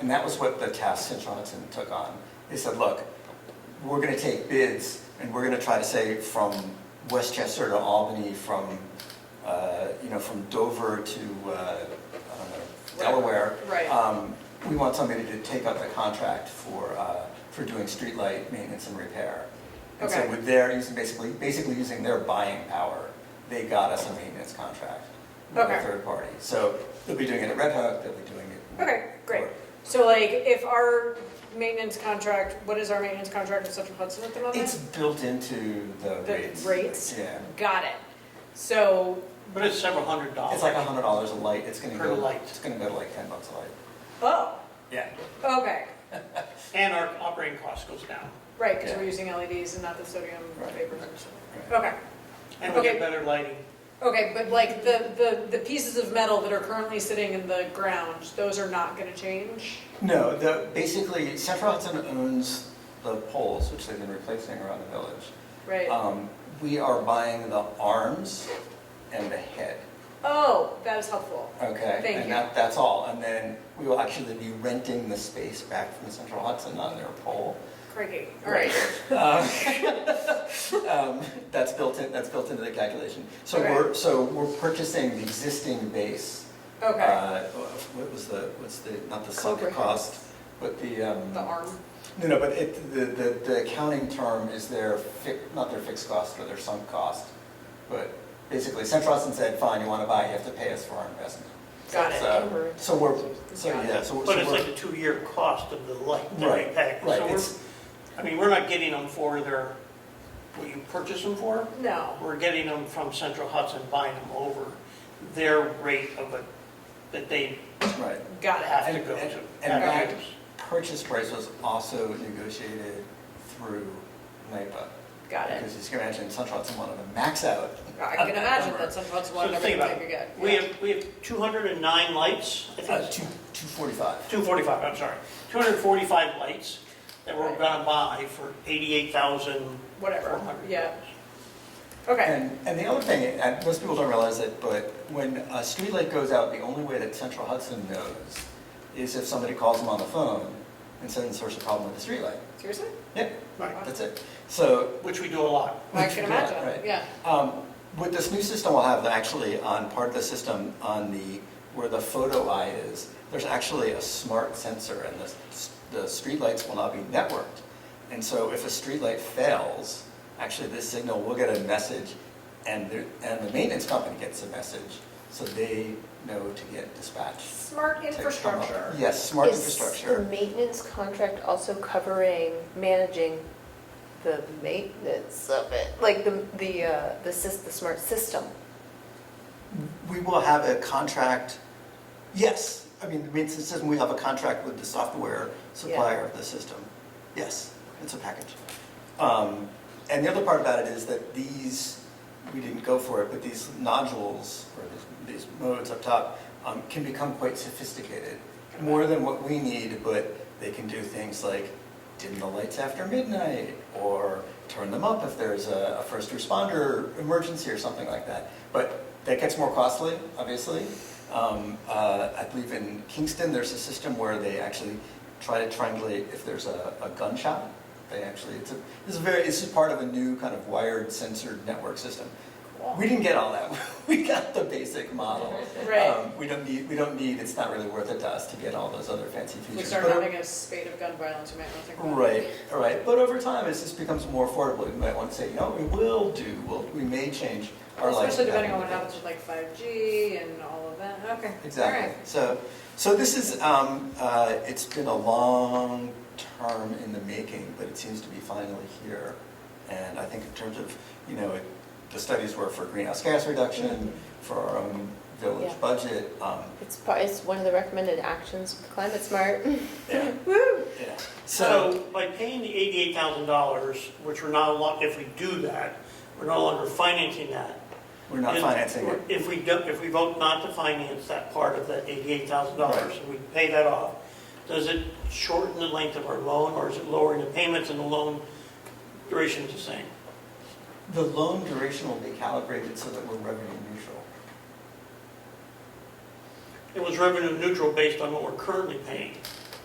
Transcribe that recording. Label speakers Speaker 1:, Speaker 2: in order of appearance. Speaker 1: And that was what the task Centronixon took on. They said, look, we're gonna take bids and we're gonna try to say from Westchester to Albany, from, uh, you know, from Dover to, uh, I don't know, Delaware.
Speaker 2: Right.
Speaker 1: Um, We want somebody to take up the contract for, uh, for doing streetlight maintenance and repair. And so
Speaker 2: Okay.
Speaker 1: with their, using, basically, basically using their buying power, they got us a maintenance contract with a
Speaker 2: Okay.
Speaker 1: third party. So they'll be doing it at Red Hook, they'll be doing it.
Speaker 2: Okay, great. So like, if our maintenance contract, what is our maintenance contract with Central Hudson at the
Speaker 1: It's
Speaker 2: moment?
Speaker 1: built into the
Speaker 2: The
Speaker 1: rates.
Speaker 2: rates?
Speaker 1: Yeah.
Speaker 2: Got it. So,
Speaker 3: But it's several hundred dollars.
Speaker 1: It's like a hundred dollars a light, it's gonna
Speaker 3: Per
Speaker 1: go,
Speaker 3: light.
Speaker 1: it's gonna go to like ten bucks a light.
Speaker 2: oh,
Speaker 1: Yeah.
Speaker 2: okay,
Speaker 3: And our operating cost goes down.
Speaker 2: right, because
Speaker 1: Yeah.
Speaker 2: we're using LEDs and not the sodium
Speaker 1: Right.
Speaker 2: vapors. and stuff. Okay,
Speaker 3: And we
Speaker 2: Okay.
Speaker 3: get better lighting.
Speaker 2: okay, but like the, the, the pieces of metal that are currently sitting in the ground, those are not gonna change?
Speaker 1: No, the, basically, Central Hudson owns the poles, which they've been replacing around the village.
Speaker 2: Right?
Speaker 1: Um, we are buying the arms and the head,
Speaker 2: Oh, that is helpful.
Speaker 1: okay?
Speaker 2: Thank
Speaker 1: And
Speaker 2: you.
Speaker 1: that, that's all, and then we will actually be renting the space back from Central Hudson on their pole.
Speaker 2: Crikey, all right.
Speaker 1: Um, um, That's built in, that's built into the calculation. So
Speaker 2: Okay.
Speaker 1: we're, so we're purchasing the existing base.
Speaker 2: Okay,
Speaker 1: uh, What was the, what's the, not the sunk
Speaker 2: Cobra.
Speaker 1: cost, but the. um,
Speaker 2: the arm,
Speaker 1: No, no, but it, the, the, the accounting term is their fi, not their fixed cost, but their sunk cost. But basically, Central Hudson said, fine, you want to buy, you have to pay us for our investment.
Speaker 2: got it.
Speaker 1: So, so we're, so
Speaker 2: Got it.
Speaker 1: yeah, so. so
Speaker 3: But it's
Speaker 1: we're-
Speaker 3: like a two-year cost of the light that we
Speaker 1: Right,
Speaker 3: pack.
Speaker 1: right,
Speaker 3: So we're,
Speaker 1: it's-
Speaker 3: I mean, we're not getting them for their, what you purchase them for.
Speaker 2: No,
Speaker 3: We're getting them from Central Hudson, buying them over their rate of it, that they
Speaker 1: Right.
Speaker 2: got it.
Speaker 3: have to
Speaker 1: And-
Speaker 3: go
Speaker 1: and-
Speaker 3: to.
Speaker 1: and
Speaker 3: package
Speaker 1: that-
Speaker 3: it.
Speaker 1: Purchase price was also negotiated through NIPA.
Speaker 2: Got it.
Speaker 1: Because as you can imagine, Central Hudson wanted to max out.
Speaker 2: I can imagine that some folks
Speaker 3: So
Speaker 2: want everything
Speaker 3: think about
Speaker 2: they
Speaker 3: it.
Speaker 2: could get.
Speaker 3: We
Speaker 2: Yeah.
Speaker 3: have, we have 209 lights, I think.
Speaker 1: Uh, two, two forty-five.
Speaker 3: 245, I'm sorry, 245 lights that we're
Speaker 2: Right.
Speaker 3: gonna buy for 88,000.
Speaker 2: Whatever, yeah, okay,
Speaker 1: And, and the other thing, and most people don't realize it, but when a streetlight goes out, the only way that Central Hudson knows is if somebody calls them on the phone and says, there's a problem with the streetlight.
Speaker 2: seriously?
Speaker 1: Yep,
Speaker 3: Right.
Speaker 1: that's it. So
Speaker 3: Which we do a lot.
Speaker 2: I can
Speaker 1: Right.
Speaker 2: imagine, yeah,
Speaker 1: Um, With this new system, we'll have actually on part of the system on the, where the photo eye is, there's actually a smart sensor and the, the streetlights will not be networked. And so if a streetlight fails, actually this signal will get a message and the, and the maintenance company gets a message. So they know to get dispatched.
Speaker 2: smart
Speaker 1: to come up.
Speaker 2: infrastructure.
Speaker 1: Yes, smart
Speaker 4: Is the
Speaker 1: infrastructure.
Speaker 4: maintenance contract also covering managing the maintenance of it? Like the, the, uh, the sys, the smart system?
Speaker 1: We will have a contract, yes, I mean, the maintenance system, we have a contract with the software supplier of the system. Yes, it's a package. Um, And the other part about it is that these, we didn't go for it, but these nodules or these- these modes up top um, can become quite sophisticated, more than what we need, but they can do things like dim the lights after midnight or turn them up if there's a, a first responder emergency or something like that. But that gets more costly, obviously. Um, uh, I believe in Kingston, there's a system where they actually try to triangulate if there's a, a gunshot. They actually, it's a, this is very, this is part of a new kind of wired censored network system. We didn't get all that. we got the basic model.
Speaker 2: Right.
Speaker 1: Um, we don't need, we don't need, it's not really worth it to us to get all those other fancy
Speaker 2: If we
Speaker 1: features.
Speaker 2: start
Speaker 1: But-
Speaker 2: having a spate of gun violence, we might want to think about it.
Speaker 1: Right, right, but over time, as this becomes more affordable, you might want to say, you know, we will do, we'll, we may change our life.
Speaker 2: Especially depending on what happens with like 5G and all of that, okay.
Speaker 1: Exactly, so, so this is, um, uh, it's been a long term in the making, but it seems to be finally here. And I think in terms of, you know, it- the studies were for greenhouse gas reduction, for our own village
Speaker 4: Yeah.
Speaker 1: budget, um,
Speaker 4: It's part, it's one of the recommended actions with Climate Smart.
Speaker 1: yeah,
Speaker 2: All right. Woo!
Speaker 1: yeah.
Speaker 3: So by paying the $88,000, which we're not, allowed- if we do that, we're no longer financing that.
Speaker 1: We're not
Speaker 3: And
Speaker 1: financing it.
Speaker 3: If we, do- if we vote not to finance that part of that $88,000 and we pay that off, does it shorten the length of our loan or is it lowering the payments and the loan duration is the same?
Speaker 1: The loan duration will be calibrated so that we're revenue neutral.
Speaker 3: It was revenue neutral based on what we're currently paying.